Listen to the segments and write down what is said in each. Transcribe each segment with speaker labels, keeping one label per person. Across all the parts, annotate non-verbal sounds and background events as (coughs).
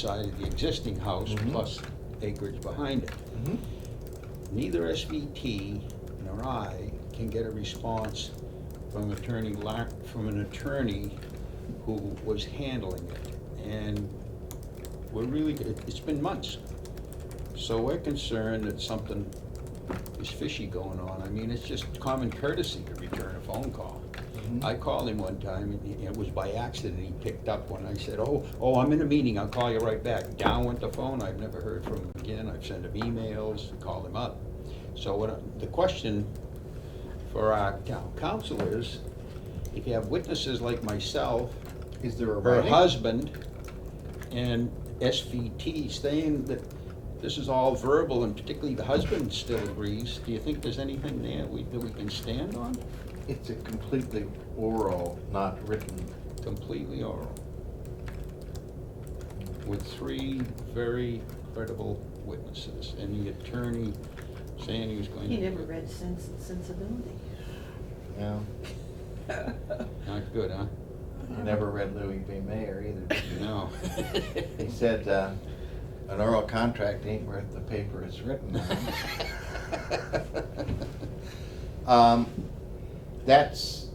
Speaker 1: side of the existing house
Speaker 2: Mhm.
Speaker 1: plus acreage behind it.
Speaker 2: Mhm.
Speaker 1: Neither SVT nor I can get a response from attorney Lar, from an attorney who was handling it. And we're really, it- it's been months. So we're concerned that something is fishy going on. I mean, it's just common courtesy to return a phone call.
Speaker 2: Mhm.
Speaker 1: I called him one time, and he- it was by accident, he picked up when I said, oh, oh, I'm in a meeting, I'll call you right back. Down went the phone, I've never heard from him again, I've sent him emails, called him up. So what, I- the question for our town council is, if you have witnesses like myself,
Speaker 2: Is there a
Speaker 1: her
Speaker 2: writing?
Speaker 1: husband, and SVT saying that this is all verbal, and particularly the husband still agrees, do you think there's anything there we, that we can stand on?
Speaker 2: It's a completely oral, not written.
Speaker 1: completely oral, with three very credible witnesses, and the attorney saying he was going to.
Speaker 3: He
Speaker 1: do
Speaker 3: never
Speaker 1: it.
Speaker 3: read Sense and Sensibility.
Speaker 2: Yeah.
Speaker 1: Not good, huh?
Speaker 2: I never read Louis B. Mayer either.
Speaker 1: No.
Speaker 2: He said, uh, an oral contract ain't worth the paper it's written on. Um, That's,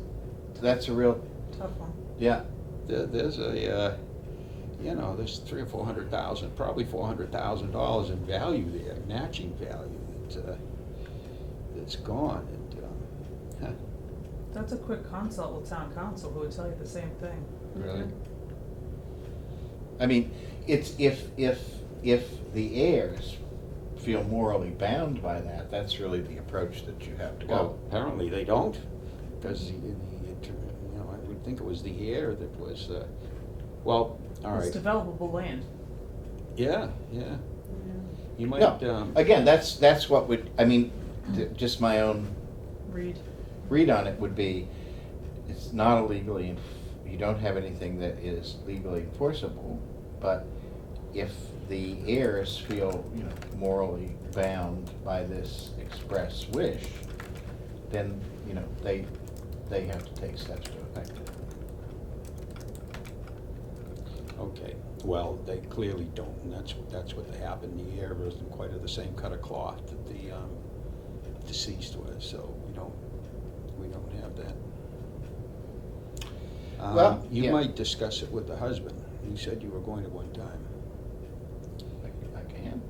Speaker 2: that's a real,
Speaker 3: Tough one.
Speaker 2: yeah,
Speaker 1: There- There's a, uh, you know, there's three or four hundred thousand, probably four hundred thousand dollars in value there, matching value that, uh, that's gone. And, um, huh,
Speaker 4: That's a quick consult with town council, who would tell you the same thing.
Speaker 1: Really?
Speaker 2: I mean, it's if, if, if the heirs feel morally bound by that, that's really the approach that you have to
Speaker 1: Well,
Speaker 2: go.
Speaker 1: apparently they don't, because the, the, attor- you know, I would think it was the heir that was, uh, well, all right.
Speaker 4: It's developable land.
Speaker 1: Yeah, yeah. You might,
Speaker 2: No,
Speaker 1: um,
Speaker 2: again, that's, that's what would, I mean, th- just my own
Speaker 4: Read.
Speaker 2: read on it would be, it's not illegally, enf- you don't have anything that is legally enforceable, but if the heirs feel, you know, morally bound by this express wish, then, you know, they, they have to take steps to effect it.
Speaker 1: okay, well, they clearly don't, and that's, that's what happened. The heir wasn't quite of the same cut of cloth that the, um, deceased was, so we don't, we don't have that.
Speaker 2: Well,
Speaker 1: Um, you
Speaker 2: yeah.
Speaker 1: might discuss it with the husband. You said you were going to one time.
Speaker 2: Like, I can.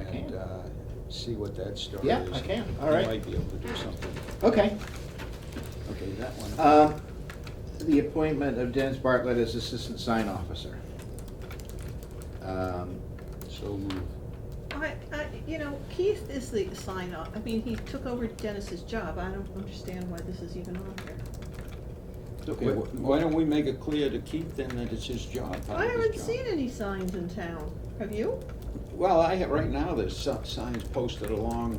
Speaker 2: I can.
Speaker 1: and uh, see what that story is.
Speaker 2: Yeah, I can. All right.
Speaker 1: You might be able to do something.
Speaker 2: Okay.
Speaker 1: Okay, that one.
Speaker 2: Um, the appointment of Dennis Bartlett as Assistant Sign Officer. Um,
Speaker 1: So move.
Speaker 3: I, I, you know, Keith is the sign off, I mean, he took over Dennis's job, I don't understand why this is even on here.
Speaker 1: Okay, wh- why don't we make it clear to Keith then that it's his job, part
Speaker 3: I
Speaker 1: of his
Speaker 3: haven't
Speaker 1: job?
Speaker 3: seen any signs in town, have you?
Speaker 1: Well, I have, right now, there's some signs posted along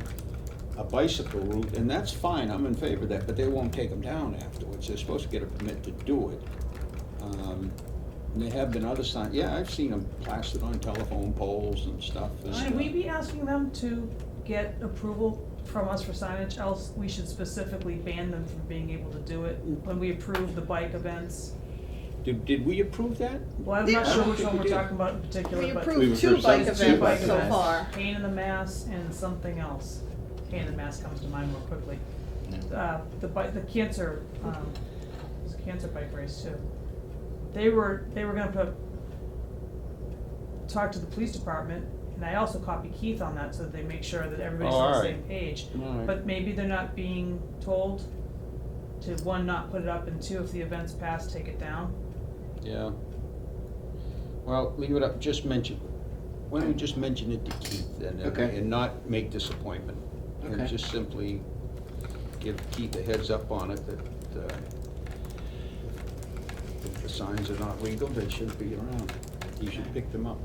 Speaker 1: a bicycle route, and that's fine, I'm in favor of that, but they won't take them down afterwards. They're supposed to get a permit to do it. Um, And there have been other signs, yeah, I've seen them plastered on telephone poles and stuff. and,
Speaker 4: Should we
Speaker 1: uh,
Speaker 4: be asking them to get approval from us for signage, else we should specifically ban them from being able to do it when we approve the bike events?
Speaker 1: Did, did we approve that?
Speaker 4: Well, I'm not
Speaker 3: Yeah.
Speaker 4: sure which one
Speaker 1: We
Speaker 4: we're
Speaker 1: did.
Speaker 4: talking about in particular,
Speaker 3: We
Speaker 4: but.
Speaker 2: We
Speaker 3: approved
Speaker 2: would
Speaker 3: two bike
Speaker 2: present two
Speaker 4: bike
Speaker 3: events so
Speaker 4: events,
Speaker 3: far.
Speaker 4: Pain in the Mass and something else. Pain in the Mass comes to mind more quickly.
Speaker 2: yeah.
Speaker 4: uh, the bike, the cancer, um, it was a cancer bike race too. They were, they were gonna put, talk to the police department, and I also copied Keith on that, so that they make sure that everybody's
Speaker 1: Oh,
Speaker 4: on the
Speaker 1: alright.
Speaker 4: same page.
Speaker 1: Alright.
Speaker 4: But maybe they're not being told to, one, not put it up, and two, if the event's passed, take it down.
Speaker 1: Yeah. Well, leave it up, just mention, why don't we just mention it to Keith and,
Speaker 2: Okay.
Speaker 1: and not make this appointment? And
Speaker 2: Okay.
Speaker 1: just simply give Keith a heads up on it that, uh, if the signs are not legal, they shouldn't be around. You should pick them up.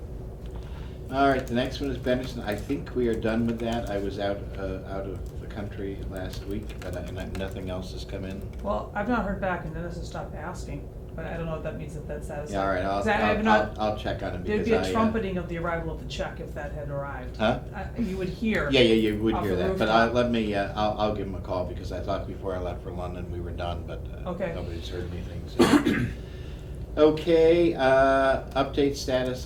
Speaker 2: All right, the next one is Benderson. I think we are done with that. I was out, uh, out of the country last week, but I, and I- nothing else has come in.
Speaker 4: Well, I've not heard back, and Dennis has stopped asking, but I don't know if that means that that's satisfactory.
Speaker 2: Yeah, all right, I'll,
Speaker 4: 'Cause I- I have
Speaker 2: I'll,
Speaker 4: not-
Speaker 2: I'll, I'll check on it because
Speaker 4: There'd be
Speaker 2: I.
Speaker 4: a
Speaker 2: uh,
Speaker 4: trumpeting of the arrival of the check if that had arrived.
Speaker 2: Huh?
Speaker 4: I- You would hear.
Speaker 2: Yeah, yeah, you would
Speaker 4: off
Speaker 2: hear
Speaker 4: the
Speaker 2: that, but I,
Speaker 4: rooftop.
Speaker 2: let me, uh, I'll, I'll give him a call because I thought before I left for London, we were done, but, uh,
Speaker 4: Okay.
Speaker 2: nobody's heard anything, so. (coughs) Okay, uh, update status